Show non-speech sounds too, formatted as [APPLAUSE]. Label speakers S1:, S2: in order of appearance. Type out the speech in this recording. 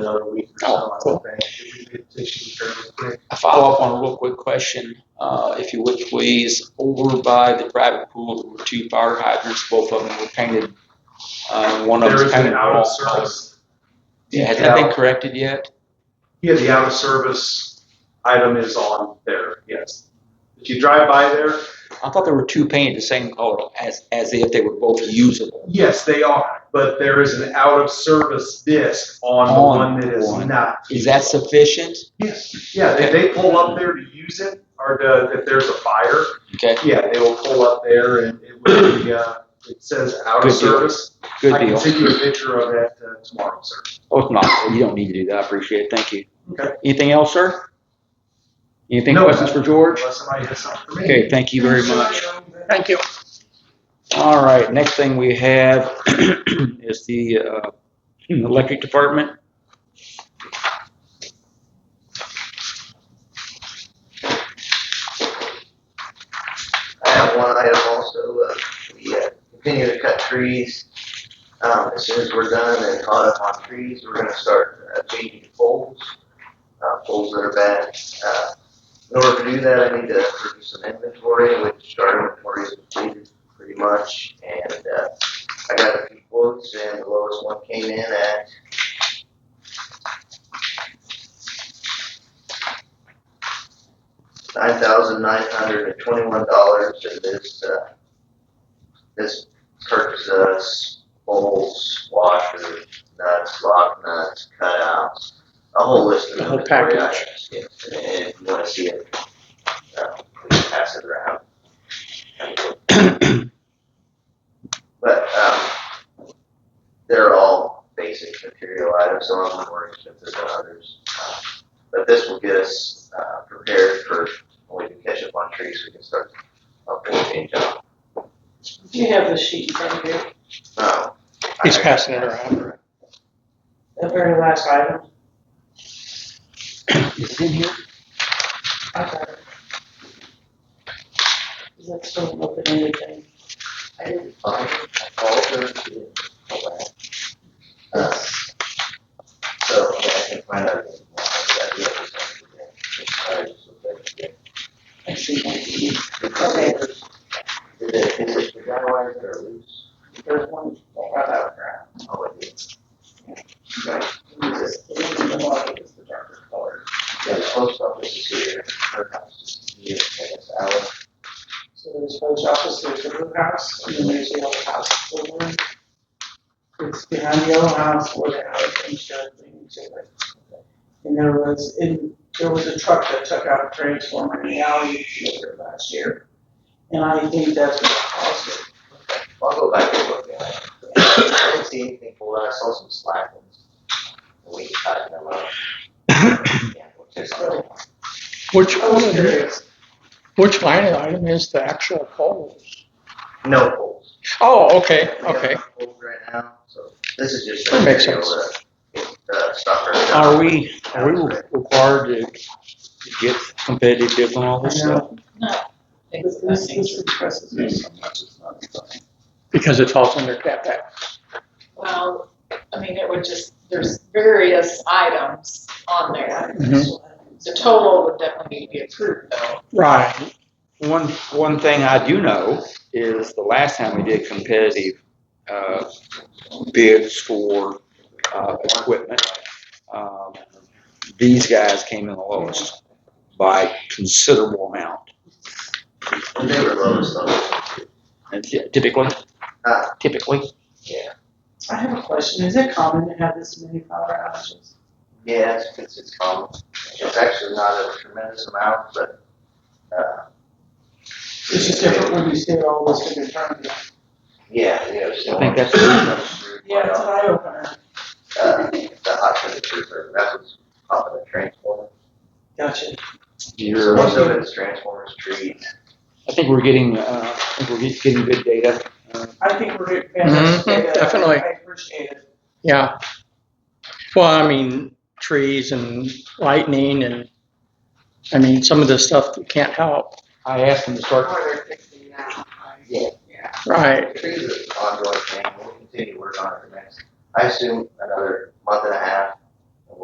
S1: another week or
S2: Oh,
S1: so, I
S2: cool.
S1: would think. If we could take it fairly quick.
S3: A follow-up on a real quick question, uh, if you would please, over by the private pool, there were two fire hydrants, both of them were painted. Uh, one of
S1: There
S3: them
S1: is an
S3: painted.
S1: out of
S3: false color.
S1: service,
S3: Yeah, has that been
S1: Yeah.
S3: corrected yet?
S1: yeah, the out of service item is on there, yes. If you drive by there,
S3: I thought there were two painted the same color, as, as if they were both usable.
S1: yes, they are, but there is an out of service disc on the
S3: On
S1: one that is
S3: one.
S1: not.
S3: Is that sufficient?
S1: Yes, yeah, if they pull up there to use it, or to, if there's a fire,
S3: Okay,
S1: yeah, they will pull up there and it will be, uh, it says out
S3: Good
S1: of
S3: deal.
S1: service.
S3: good
S1: I can
S3: deal.
S1: send you a picture of that uh, tomorrow, sir.
S3: Oh, if not, you don't need to do that, I appreciate it, thank you.
S1: Okay.
S3: Anything else, sir? Anything,
S1: No.
S3: questions for George?
S1: Unless somebody has something for me.
S3: Okay, thank you very much.
S2: Thank you.
S3: All right, next thing we have [CLEARS THROAT] is the uh, [CLEARS THROAT] electric department.
S4: I have one item also, uh, we uh, continue to cut trees. Um, as soon as we're done and caught up on trees, we're gonna start uh, changing poles, uh, poles that are bad. Uh, in order to do that, I need to produce some inventory, which our inventory is completed pretty much. And, uh, I got a few quotes and the lowest one came in at nine thousand nine hundred and twenty-one dollars, and this, uh, this purchases bowls, washers, nuts, lock nuts, cutouts, a whole list of
S2: The whole
S4: inventory
S2: package.
S4: items. yeah. And if you wanna see it, uh, we can pass it
S2: [CLEARS THROAT]
S4: around. But, um, they're all basic material items, some of them are more expensive than others. Uh, But this will get us, uh, prepared for when we can catch up on trees, we can start uh, helping change up.
S5: Do you have the sheet in front of you,
S4: Um, I-
S2: He's passing it around.
S5: the very last item?
S3: Is it in here?
S5: Okay. Is that still open anything?
S4: I didn't find it, I called her, she didn't call back. Uh, So, yeah, I can find out. if there's more, but I do have this one today.
S5: I see one.
S4: Sorry, it's okay. Did it, is it the guy wires that are loose?
S5: There's one right out there.
S4: Oh, it is.
S5: This- The one in the market is the darker color.
S4: Yeah, the post office is here, her house is here, and it's out.
S5: So there's post office, there's the blue house, and then there's the yellow house. The one- It's behind the yellow house where the house and shed thing is. And there was, in, there was a truck that took out a transformer in the alley later last year. And I think that's what caused it.
S4: I'll go back and look at it. I didn't see anything for that, I saw some slack ones. We tightened them up. Yeah, we'll check on it.
S2: Which,
S5: I was curious.
S2: which line item is the actual polls?
S4: No holes.
S2: Oh, okay, okay.
S4: Holes right now, so this is just.
S2: That makes
S4: material that, Uh, stopper.
S3: Are we, are we required to get competitive bids on all this stuff?
S5: This, this this impresses me so much, it's not funny.
S2: Because it falls under CapEx.
S6: Well, I mean, it would just, there's various items on there. The total would definitely be approved though.
S2: Right.
S3: One, one thing I do know is the last time we did competitive, uh, bids for, uh, equipment, um, these guys came in the lowest by considerable amount.
S4: They were lowest on,
S3: And typically,
S4: uh,
S3: typically,
S5: I have a question, is it common to have this many power outages?
S4: Yeah, it's, it's, it's common. It's actually not a tremendous amount, but, uh,
S5: It's just different when you see it all listed in front of you.
S4: yeah, you know, still.
S3: I think that's-
S5: Yeah, it's an eye opener.
S4: Uh, the hot temperature, for- that's what's popping the transformer.
S5: Gotcha.
S3: you're.
S4: Most of it is transformers, trees.
S3: I think we're getting, uh, I think we're just getting good data. Uh,
S5: I think we're fantastic.
S2: Mhm,
S5: data.
S2: definitely.
S5: I appreciate it.
S2: Yeah. Well, I mean, trees and lightning and, I mean, some of the stuff that can't help.
S3: I asked them to start,
S2: Right.
S4: Trees is an ongoing thing, we'll continue to work on it for next, I assume another month and a half,